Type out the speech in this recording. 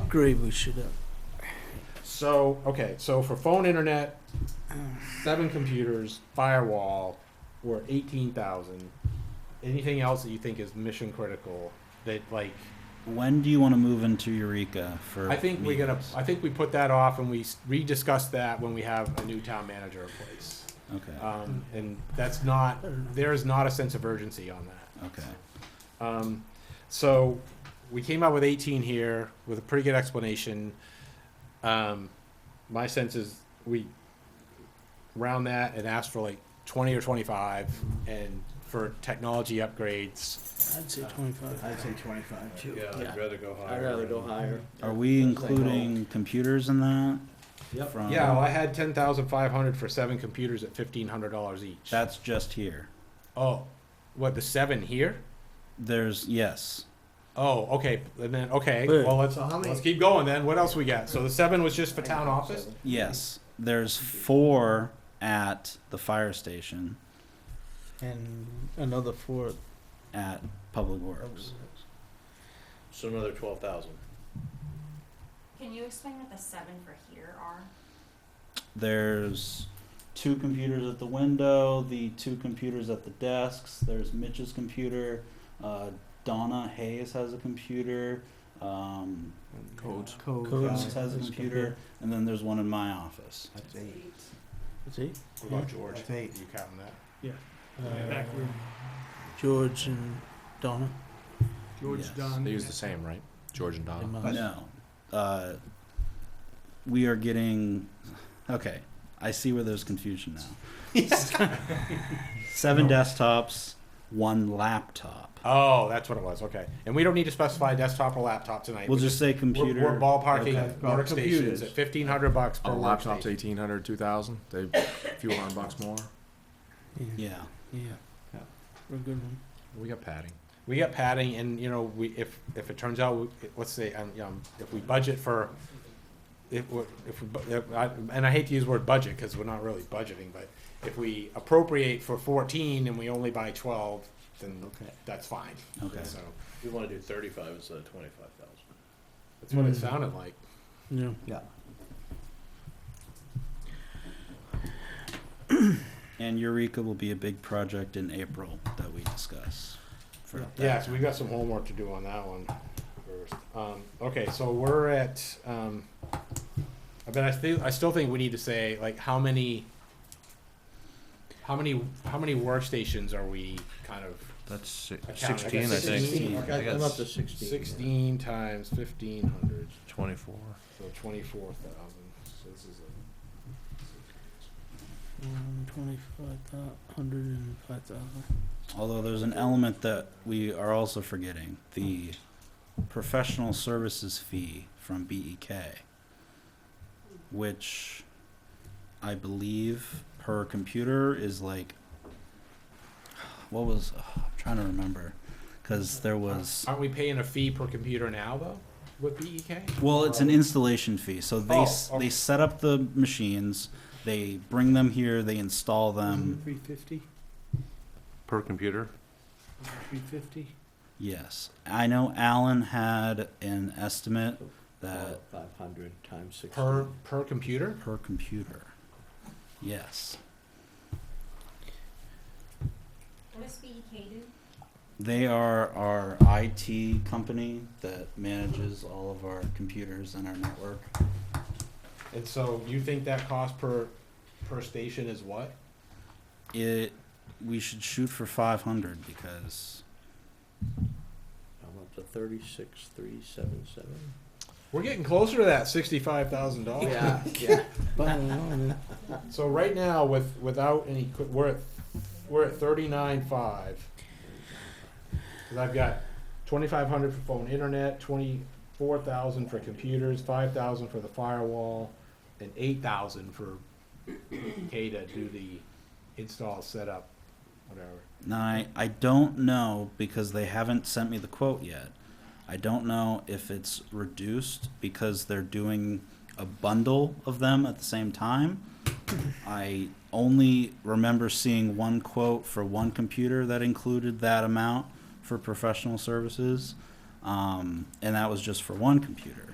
upgrade we should have. So okay, so for phone internet, seven computers, firewall, were eighteen thousand. Anything else that you think is mission critical that like When do you want to move into Eureka for? I think we're gonna meetings? I think we put that off and we s- rediscuss that when we have a new town manager in place. Okay, Um, and that's not there is not a sense of urgency on that. okay. Um, so we came out with 18 here with a pretty good explanation. Um, my sense is we round that and ask for like 20 or 25 and for technology upgrades. I'd say twenty-five. I'd say twenty-five too. Yeah. rather go I'd rather go higher. Are we including computers in that? Yep. From- Yeah, well, I had 10,500 for seven computers at $1,500 each. That's just here. oh, what, the seven here? There's, yes. Oh, okay. And then, okay. Wait. Well, let's, So how many- let's keep going then. What else we got? So the seven was just for town office? Yes, there's four at the fire station And another four. at Public Works. So another twelve thousand. Can you explain what the seven for here are? There's two computers at the window, the two computers at the desks. There's Mitch's computer. Uh, Donna Hayes has a computer. Um, Codes. Codes Codes. has a computer, and then there's one in my office. That's eight. See? What about George? That's eight. You counting that? Uh, George and Donna. George Dunn. They use the same, right? George and they Donna. must. No. Uh, we are getting. Okay. I see where there's confusion now. Seven desktops, one laptop. Oh, that's what it was. Okay. And we don't need to specify desktop or laptop tonight. We'll We just say We're- computer. We're ballparking Okay. workstations Computers. at fifteen hundred bucks per Oh, laptops workstation. eighteen hundred, two thousand. They a few hundred bucks more. Yeah. Yeah. Yeah. Yeah. We're good one. We got padding. We got padding, and you know, we if if it turns out, we- let's say, um, you know, if we budget for, if we if we, bu- if I, and I hate to use the word budget because we're not really budgeting, but if we appropriate for fourteen and we only buy twelve, then Okay. that's fine. Okay. So We wanna do thirty-five instead of twenty-five thousand. that's what it Mm. sounded like. Yeah. Yeah. And Eureka will be a big project in April that we discuss. For Yeah. that. Yeah, so we've got some homework to do on that one first. Um, okay, so we're at, um, I bet I still, I still think we need to say, like, how many, how many, how many workstations are we kind of, That's I count- I got sixteen, I think. Sixteen, I got- I'm up to sixteen. sixteen times fifteen hundred, Twenty-four. so twenty-four thousand, so this is a. Um, twenty-five thou- hundred and five thousand. Although there's an element that we are also forgetting the professional services fee from BEK, which I believe per computer is like. What was. I'm trying to remember. Because there was. Aren't we paying a fee per computer now, though, with E BEK? Well, it's an installation fee. So they s Oh, okay. they set up the machines, they bring them here, they install Mm-hmm. them. Three fifty, Per computer? three fifty? Yes, I know Alan had an estimate that Uh, Five hundred times sixteen. Per, per computer? per computer. Yes, What does BEK do? they are our IT company that manages all of our computers and our network. And so you think that cost per, per station is what? It we should shoot for five hundred because I'm up to thirty-six, three, seven, seven. We're getting closer to that sixty-five thousand dollars. Yeah, yeah. I don't know, man. So right now, with without any, qu- we're at we're at thirty-nine five. Cause I've got twenty-five hundred for phone internet, twenty-four thousand for computers, five thousand for the firewall, and eight thousand for K to do the install setup, whatever. Now, I, I don't know because they haven't sent me the quote yet. I don't know if it's reduced because they're doing a bundle of them at the same time. I only remember seeing one quote for one computer that included that amount for professional services, um, and that was just for one computer.